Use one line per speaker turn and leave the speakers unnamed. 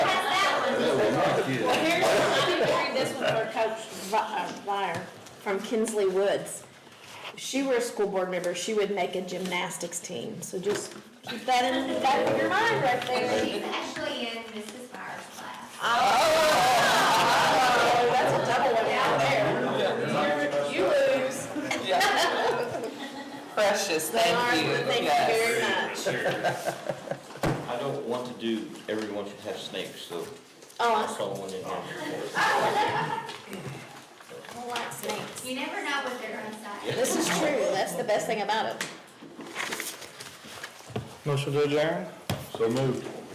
this with our coach, Vi- uh, Vire, from Kinsley Woods. If She were a school board member, she would make a gymnastics team, so just keep that in the back of your mind right there.
She's actually in Mrs. Meyer's class.
Oh, that's a double one out there. You lose.
Precious,
They are,
thank you,
thank
yes.
you very much.
I don't want to do, everyone should have snakes, so I
Oh,
saw one in here.
I don't like snakes.
You never know what they're gonna say.
This is true, that's the best thing about it.
Motion to adjourn?
So moved.